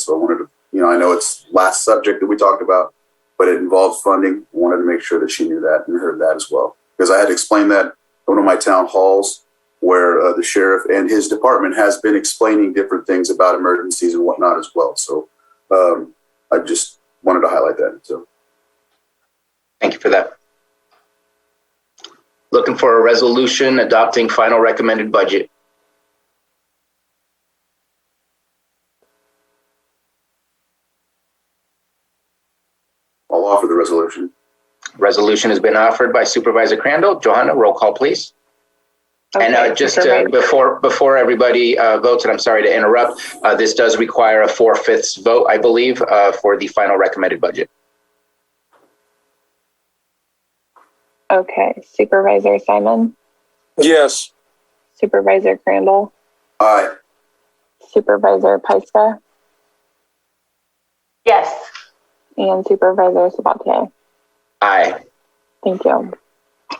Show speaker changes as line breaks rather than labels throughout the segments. So I wanted to, you know, I know it's last subject that we talked about, but it involves funding. I wanted to make sure that she knew that and heard that as well. Because I had to explain that at one of my town halls where uh, the sheriff and his department has been explaining different things about emergencies and whatnot as well. So um, I just wanted to highlight that. So
Thank you for that. Looking for a resolution adopting final recommended budget.
I'll offer the resolution.
Resolution has been offered by Supervisor Crandall. Johanna, roll call, please. And uh,
Okay,
just
Mr.
uh,
Mayor,
before, before everybody uh, votes, and I'm sorry to interrupt, uh, this does require a four-fifths vote, I believe, uh, for the final recommended budget.
Okay, Supervisor Simon,
Yes.
Supervisor Crandall,
Aye.
Supervisor Pyska,
Yes,
and Supervisor Sabatier.
Aye.
Thank you.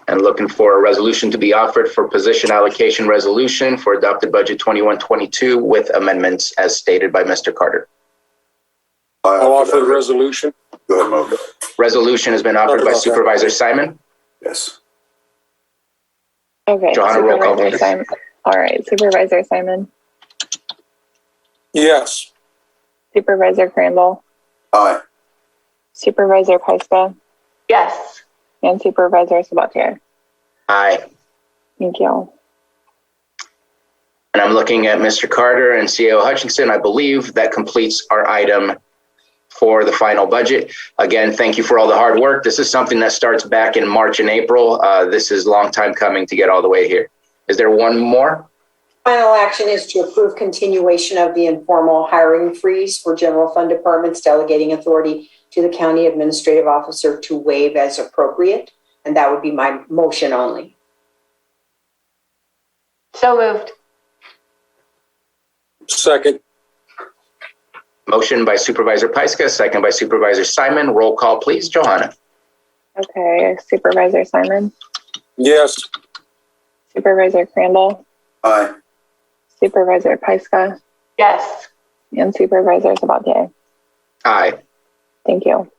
and looking for a resolution to be offered for position allocation resolution for adopted budget 2122 with amendments as stated by Mr. Carter.
I
I'll offer the resolution.
Go ahead, Mo.
Resolution has been offered by Supervisor Simon.
Yes.
Okay.
Johanna, roll call,
Supervisor
please.
Simon. All right, Supervisor Simon,
Yes.
Supervisor Crandall,
Aye.
Supervisor Pyska,
yes,
and Supervisor Sabatier.
Aye.
Thank you.
And I'm looking at Mr. Carter and CEO Hutchinson. I believe that completes our item for the final budget. Again, thank you for all the hard work. This is something that starts back in March and April. Uh, This is a long time coming to get all the way here. Is there one more?
Final action is to approve continuation of the informal hiring freeze for general fund departments delegating authority to the county administrative officer to waive as appropriate. And that would be my motion only.
so moved.
Second.
Motion by Supervisor Pyska, second by Supervisor Simon. Roll call, please. Johanna?
Okay, Supervisor Simon,
Yes.
Supervisor Crandall,
Aye.
Supervisor Pyska,
Yes,
and Supervisor Sabatier.
Aye.
Thank you.